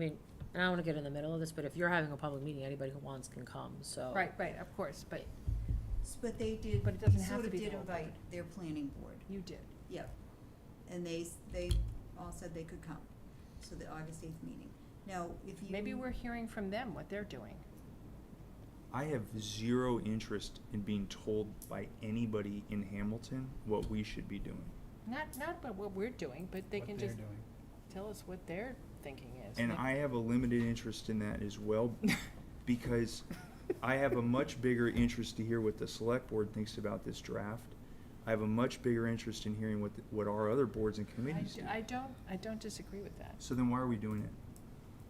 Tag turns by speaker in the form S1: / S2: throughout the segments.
S1: I mean, and I don't want to get in the middle of this, but if you're having a public meeting, anybody who wants can come, so.
S2: Right, right, of course, but
S3: S- But they did,
S2: But it
S3: they
S2: doesn't have
S3: sort
S2: to
S3: of
S2: be the
S3: did
S2: whole
S3: invite
S2: board.
S3: their planning board,
S2: you did.
S3: yep. And they, s- they all said they could come, so the August eighth meeting. Now, if you.
S2: Maybe we're hearing from them what they're doing.
S4: I have zero interest in being told by anybody in Hamilton what we should be doing.
S2: Not, not about what we're doing, but they
S5: what
S2: can
S5: they're
S2: just
S5: doing.
S2: tell us what their thinking is.
S4: And I have a limited interest in that as well because I have a much bigger interest to hear what the select board thinks about this draft. I have a much bigger interest in hearing what, the- what our other boards and
S2: I,
S4: committees
S2: d-
S4: do.
S2: I don't, I don't disagree with that.
S4: So then why are we doing it?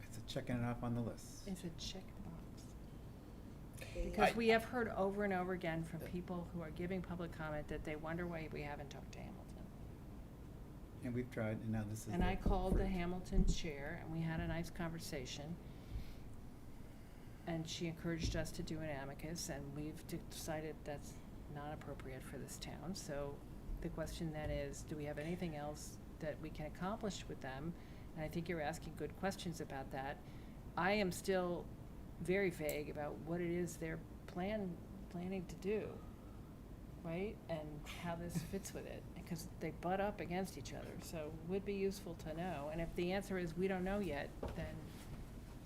S5: It's a checking it off on the list.
S2: It's a checkbox.
S3: they-
S2: Because we have heard over and over again from people who are giving public comment that they wonder why we haven't talked to Hamilton.
S5: And we've tried, and now this is.
S2: And I called the
S5: fruit.
S2: Hamilton chair, and we had a nice conversation. And she encouraged us to do an amicus, and we've de- decided that's not appropriate for this town. So the question then is, do we have anything else that we can accomplish with them? And I think you're asking good questions about that. I am still very vague about what it is they're plan, planning to do, right? And how this fits with it, because they butt up against each other, so would be useful to know. And if the answer is we don't know yet, then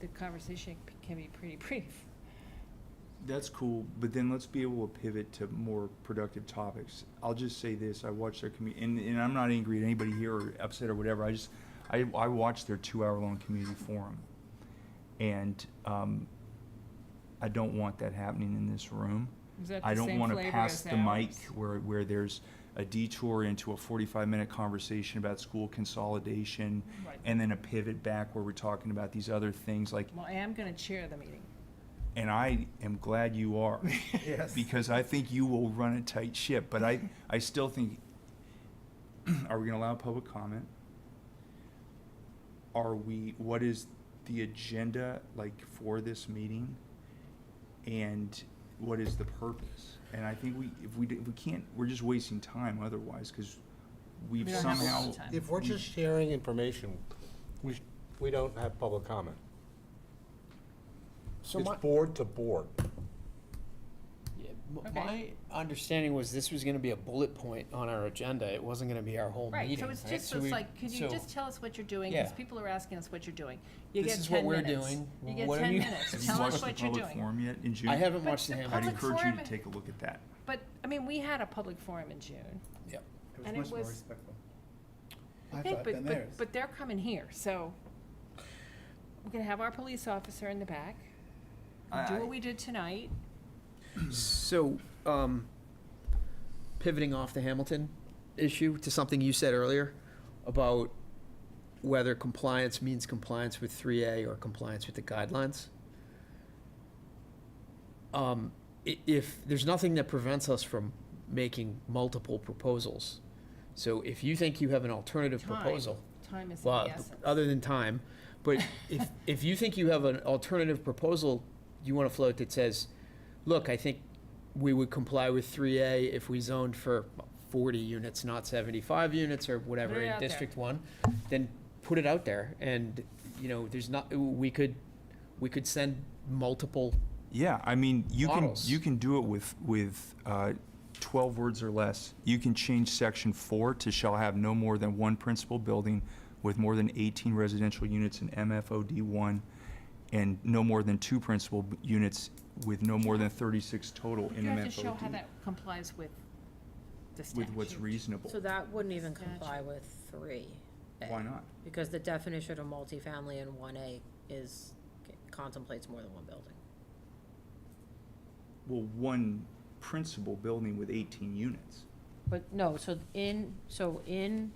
S2: the conversation c- can be pretty brief.
S4: That's cool, but then let's be able to pivot to more productive topics. I'll just say this, I watched their commu- and, and I'm not angry at anybody here or upset or whatever, I just, I, I watched their two-hour-long community forum. And, um, I don't want that happening in this room.
S2: Is that
S4: I
S2: the
S4: don't
S2: same
S4: wanna
S2: flavor
S4: pass
S2: as
S4: the mic
S2: ours?
S4: where, where there's a detour into a forty-five minute conversation about school consolidation
S2: Right.
S4: and then a pivot back where we're talking about these other things like,
S2: Well, I am gonna chair the meeting.
S4: and I am glad you are.
S5: Yes.
S4: Because I think you will run a tight ship, but I, I still think, are we gonna allow public comment? Are we, what is the agenda like for this meeting? And what is the purpose? And I think we, if we, d- if we can't, we're just wasting time otherwise, cause we've
S2: We don't have a lot
S4: somehow.
S2: of time.
S6: If we're just sharing information, we, sh- we don't have public comment. It's
S7: So my,
S6: board to board.
S7: yeah, m- my
S2: Okay.
S7: understanding was this was gonna be a bullet point on our agenda, it wasn't gonna be our whole meeting.
S2: Right, so it's just,
S7: we-
S2: it's like, could you
S7: so
S2: just tell us what you're doing, because
S7: Yeah.
S2: people are asking us what you're doing. You
S7: This
S2: get
S7: is what
S2: 10
S7: we're
S2: minutes.
S7: doing.
S2: You get
S7: What have
S2: ten
S7: you-
S2: minutes,
S4: Have you
S2: tell us
S4: watched the
S2: what you're
S4: public
S2: doing.
S4: forum yet in June?
S7: I haven't
S2: But
S7: watched the
S2: the
S4: I'd
S2: public
S7: Hamilton,
S4: encourage you to
S2: forum-
S4: take a look at that.
S2: But, I mean, we had a public forum in June.
S7: yeah,
S2: and
S5: It
S2: it
S5: was much more
S2: was-
S5: respectful. I
S2: Okay,
S5: thought
S2: but-
S5: than
S2: but-
S5: theirs.
S2: But they're coming here, so we're gonna have our police officer in the back,
S4: I-
S2: do
S4: I-
S2: what we did tonight.
S7: so, um, pivoting off the Hamilton issue to something you said earlier about whether compliance means compliance with three A or compliance with the guidelines. Um, i- if, there's nothing that prevents us from making multiple proposals. So if you think you have an alternative
S2: Time.
S7: proposal.
S2: Time is of
S7: Well,
S2: the
S4: uh,
S2: essence.
S7: other than time, but if, if you think you have an alternative proposal you want to float that says, look, I think we would comply with three A if we zoned for forty units, not seventy-five units or whatever
S2: Put it
S7: in
S2: out there.
S7: District One, then put it out there and, you know, there's not, we could, we could send multiple,
S4: Yeah, I mean, you
S7: Models.
S4: can you can do it with with uh, twelve words or less. You can change section four to shall have no more than one principal building with more than eighteen residential units in MFOD one, and no more than two principal b- units with no more than thirty six total in
S2: You have to show how
S4: MFOD
S2: that complies with the statute.
S4: with what's reasonable.
S1: So that wouldn't even
S2: Statute.
S1: comply with three. A,
S4: Why not?
S1: Because the definition of multifamily in one A is, contemplates more than one building.
S4: Well, one principal building with eighteen units.
S1: But no, so in, so in,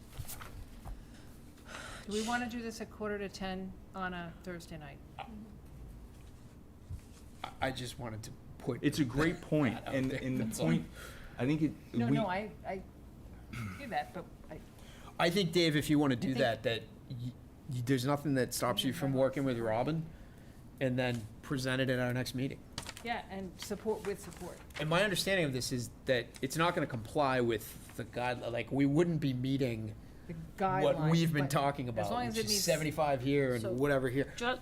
S2: Do we wanna do this at quarter to ten on a Thursday night?
S7: I, I just wanted to put.
S4: It's a great point,
S7: That out
S4: and
S7: there,
S4: and the
S7: that's all.
S4: point, I think it.
S2: No,
S4: we,
S2: no, I, I hear that, but I,
S7: I think, Dave, if you want to do
S2: think-
S7: that, that y y there's nothing that stops you from working with Robin and then present it at our next meeting.
S2: yeah, and support with support.
S7: And my understanding of this is that it's not gonna comply with the guide, like, we wouldn't be meeting
S2: the guidelines.
S7: what we've been
S2: but
S7: talking
S2: as long
S7: about,
S2: as it
S7: which is
S2: meets-
S7: seventy-five here
S1: So-
S7: and whatever here.
S1: Just,